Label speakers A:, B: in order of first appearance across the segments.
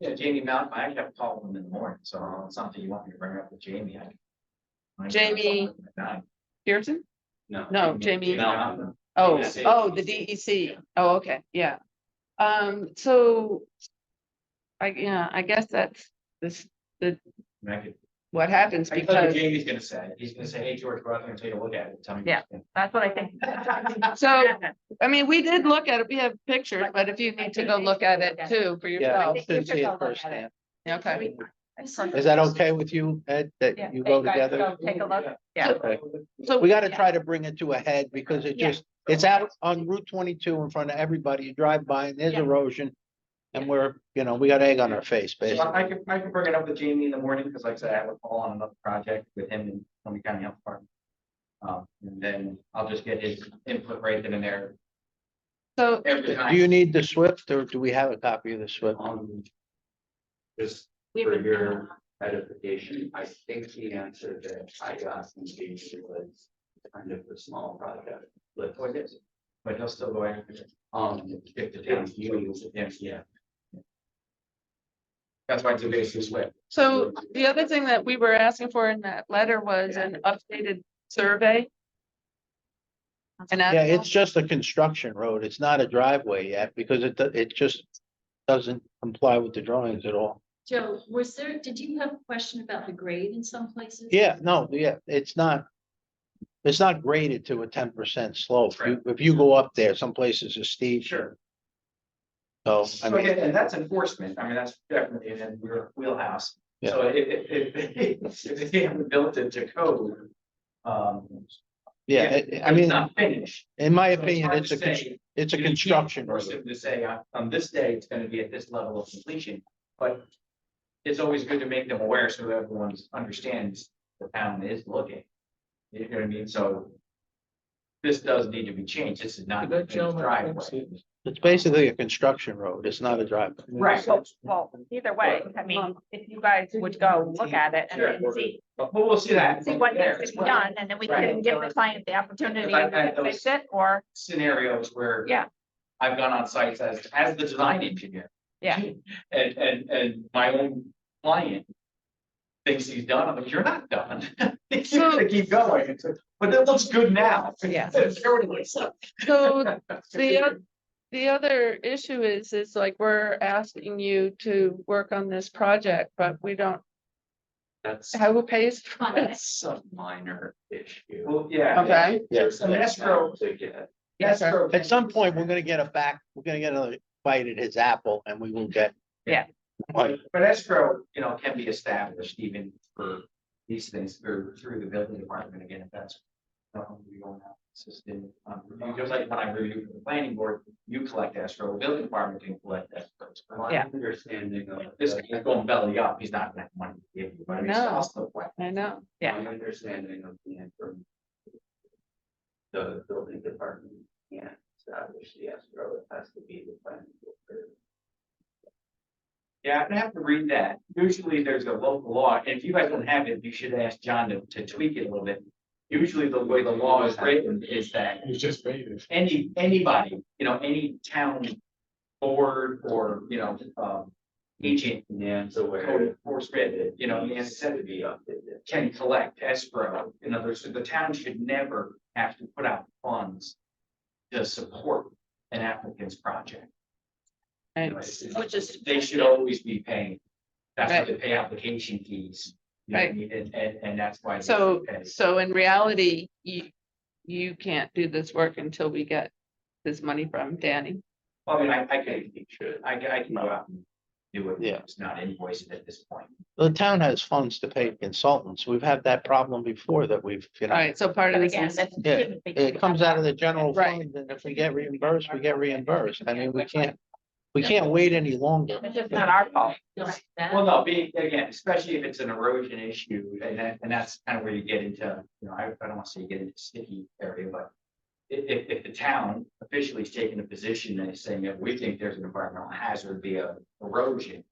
A: Yeah, Jamie Mount, I actually have a call with him in the morning, so it's something you want me to bring up with Jamie. I can- I can-
B: Jamie-
A: No,
B: Pearson?
A: No.
B: No, Jamie-
A: Mountain.
B: Oh,
C: E
A: DEC.
B: oh, the DEC. Oh, okay, yeah. Um, so. I, yeah, I guess that's this,
A: And I could-
B: what happens
A: I can tell you what
B: because,
A: Jamie's gonna say, he's gonna say, hey, George, go out there and take a look at it, tell me. what you
B: Yeah.
A: think."
D: That's what I think.
B: so, I mean, we did look at it. We have pictures, but if you need to go look at it too for
C: Yeah,
B: yourself,
C: I didn't see
D: Yourself look
C: it
D: at it.
C: firsthand.
B: okay.
C: Is that okay with you, Ed,
D: Yeah,
C: that you
D: they
C: go
D: guys
C: together?
D: go Take a look,
B: Yeah.
C: Okay.
B: So,
C: We gotta
D: Yeah.
C: try to bring it to a head because it
D: Yeah.
C: just, it's out on Route twenty-two in front of everybody. You drive by and there's
D: Yeah.
C: erosion.
D: Yeah.
C: And we're, you know, we got egg on our face,
A: So
C: basically.
A: I can, I can bring it up with Jamie in the morning, because like I said, I have a call on another project with him and Tony County Health Department. Um, and then I'll just get his input right then and there
B: so,
A: every
C: Do
A: time.
C: you need the Swift or do we have a copy of the Swift?
E: Um, Just
D: We
E: for
D: would,
E: your edification, I think the answer that I got from Jamie was kind of a small project. But
A: What Oh, it is. But he'll still go after it.
E: um,
A: If the town,
E: if you,
A: yeah,
E: if
A: yeah. That's why it's a basis way.
B: so the other thing that we were asking for in that letter was an updated survey. And
C: Yeah,
B: that's
C: it's just a construction road. It's not a driveway yet because it, do- it just doesn't comply with the drawings at all.
F: Joe, was there, did you have a question about the grade in some places?
C: Yeah, no, yeah, it's not. It's not graded to a ten percent slope. You- If you go up there, some places are steep,
A: Sure.
C: so I
A: So
C: mean.
A: again, and that's enforcement. I mean, that's definitely in your wheelhouse. So if, if, if, if they haven't built it to code. Um.
C: Yeah,
A: if-
C: it-
A: if
C: I mean,
A: It's not finished.
C: in my
A: so
C: opinion,
A: hard
C: it's
A: to
C: a, con-
A: say.
C: it's a
A: You can't
C: construction
A: force
C: road.
A: them To say, on, on this day, it's gonna be at this level of completion, but. It's always good to make them aware so that everyone understands the town is looking. You know what I mean? So. This does need to be changed. This is not. a driveway.
C: It's basically a construction road. It's not a driveway.
A: Right.
D: well, well, either way, I mean, if you guys would go look at it and then
A: Sure.
D: see,
A: But but we'll see that.
D: see what
A: there
D: needs
A: as
D: to be
A: well.
D: done, and then we can
A: Right.
D: give the client the opportunity
A: I've had
D: to fix
A: those-
D: it, or,
A: Scenarios where.
D: Yeah.
A: I've gone on sites as, as the design engineer.
D: yeah.
A: And, and, and my own client. Thinks he's done, I'm like, you're not done. You gotta keep going, It's like, but that looks good now.
B: Yeah.
A: Everyone's like,
B: so The, oth- the other issue is, is like we're asking you to work on this project, but we don't,
E: that's
B: how who pays for
F: Fine.
B: it?
E: that's a minor issue.
A: Well, yeah.
B: Okay,
A: There's an escrow.
E: To get,
B: Yes, sir.
A: escrow-
C: At some point, we're gonna get a back, we're gonna get another bite at his apple and we will get.
D: Yeah.
C: Like,
A: But escrow, you know, can be established even for these things or through the building department again, if that's. something we don't have System, um, review. just like when I review for the planning board, you collect escrow, building department can collect escrow. So my
D: Yeah.
A: Understanding of this, he's going belly up, he's not gonna have money to give you, but he's
B: No.
A: also. wet.
B: I know.
D: Yeah.
E: my understanding of the information. The building department can't establish the escrow, it has to be the planning board.
A: Yeah, I'd have to read that. Usually there's a local law, and if you guys don't have it, you should ask John to, to tweak it a little bit. Usually the way the law is written is that. You just made it. Any, anybody, you know, any town board or, you know, um, agent,
E: Nan's
A: code
E: aware.
A: enforcement, you know,
E: Nan's said to
A: necessity
E: be updated.
A: uh, can collect escrow. In other words, the town should never have to put out funds to support an applicant's project.
B: Right.
A: You know, it's- it's-
F: Which is-
A: They should always be paying. That's why they pay application fees. you know what I mean? And, and, and that's why. they
B: So,
A: should pay.
B: so in reality, you, you can't do this work until we get this money from Danny.
A: I mean, I, I could, I, could- I can go out and do it.
C: Yeah.
A: It's not invoiced at this point.
C: The town has funds to pay consultants. We've had that problem before that we've, you
B: All
C: know,
B: right, so part of
D: But
B: this
D: again,
B: is,
D: that
C: Yeah,
D: shouldn't be-
C: it comes out of the general
B: Right.
C: fund and if we get reimbursed, we get reimbursed. I mean, we can't, we can't wait any longer.
D: It's just not our fault.
F: Just that?
A: Well, no, being, again, especially if it's an erosion issue, and that, and that's kind of where you get into, you know, I, I don't want to say get into sticky area, but. If, if, if the town officially is taking a position and is saying that we think there's an environmental hazard via erosion.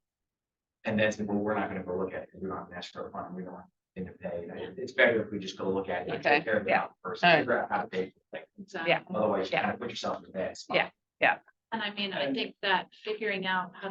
A: And that's, well, we're not gonna go look at it, because we don't have an escrow fund, we don't have anything to pay, and it's better if we just go look at it and
B: Okay,
A: take care of
D: yeah.
A: that person,
B: Alright.
A: figure out how to pay. for it.
F: Exactly.
A: Otherwise, you
D: Yeah.
A: kind of put yourself in a bad spot.
D: Yeah.
F: And I mean, I think that figuring out how to